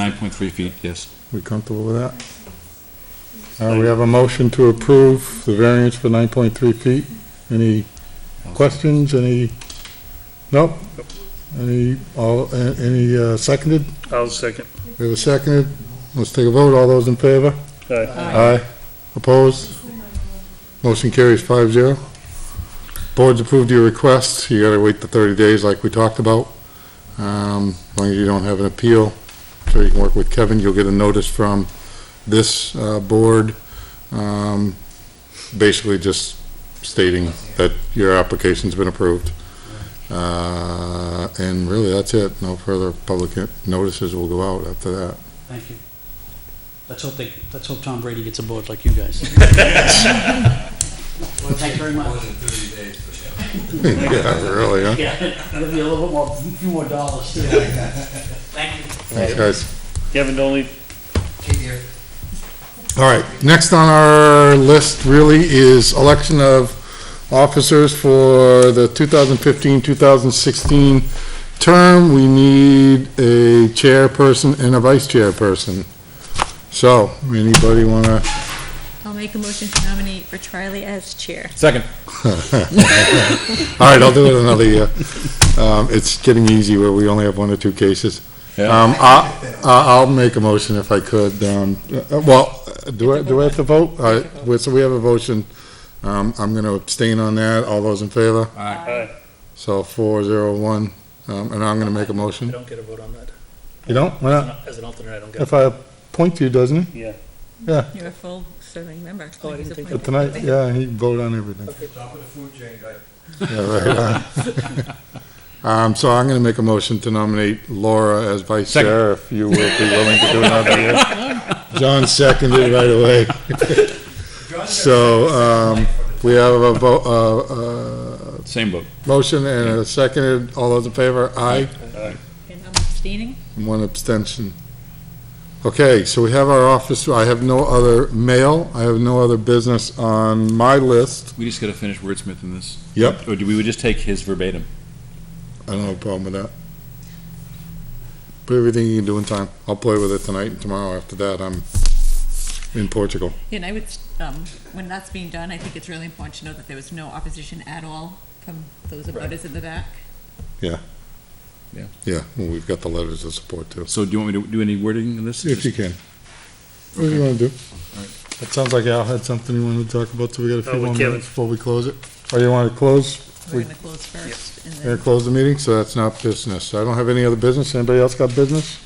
nine point three feet, yes. We comfortable with that? Uh, we have a motion to approve the variance for nine point three feet. Any questions, any? Nope. Any, all, a- any, uh, seconded? I'll second. We have a seconded. Let's take a vote. All those in favor? Aye. Aye. Opposed? Motion carries five zero. Board's approved your request. You gotta wait the thirty days like we talked about. Um, as long as you don't have an appeal, so you can work with Kevin, you'll get a notice from this, uh, board, um, basically just stating that your application's been approved. Uh, and really, that's it. No further public notices will go out after that. Thank you. Let's hope they, let's hope Tom Brady gets aboard like you guys. Well, thank you very much. Yeah, really, huh? Yeah, it'll be a little bit more, few more dollars too. Thank you. Thanks, guys. Kevin, don't leave. All right, next on our list really is election of officers for the 2015-2016 term. We need a chairperson and a vice chairperson. So, anybody want to I'll make a motion to nominate for Charlie as chair. Second. All right, I'll do it another year. Um, It's getting easy where we only have one or two cases. Yeah. Um, I- I- I'll make a motion if I could. um, uh, Well, uh, do I, do I have to vote? All right, well, so we have a motion. Um, I'm going to abstain on that. All those in favor? Aye. So four, zero, one. Um, And I'm going to make a I motion. don't get a vote on that. You don't? Why not? As an alternate, I don't get. If I appoint you, doesn't he? You're a full serving member. Oh, I didn't think But tonight, yeah, he vote on everything. Top of the food chain, guy. Yeah, right. Um, so I'm gonna make a motion to nominate Laura as vice Second. chair, if you will be willing to do another year. John seconded right away. So, um, we have a vote, uh, uh, Same vote. motion and a seconded. All those in favor? Aye. And I'm abstaining. And one abstention. Okay, so we have our office, I have no other mail, I have no other business on my list. We just gotta finish wordsmithing this. Yep. Or do we just take his verbatim? I don't have a problem with that. Put everything you can do in time. I'll play with it tonight and tomorrow. After that, I'm in Portugal. And I would, um, when that's being done, I think it's really important to know that there was no opposition at all from those abutters in the back. Yeah, well, we've got the letters of support too. So do you want me to do any wording in this? If you can. What do you wanna do? That sounds like Al had something he wanted to talk about, so we got a Oh, few we more can't. minutes before we close it. Or you wanna close, We're We- gonna close first and gonna then close the meeting? So that's not business. I don't have any other business. Anybody else got business?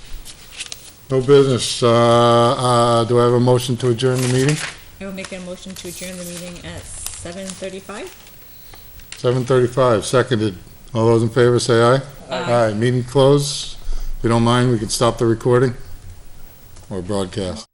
No business. Uh, uh, do I have a motion to adjourn the meeting? I will make a motion to adjourn the meeting at seven thirty-five. Seven thirty-five, seconded. All those in favor say aye. Aye. Meeting closed. If you don't mind, we can stop the recording or broadcast.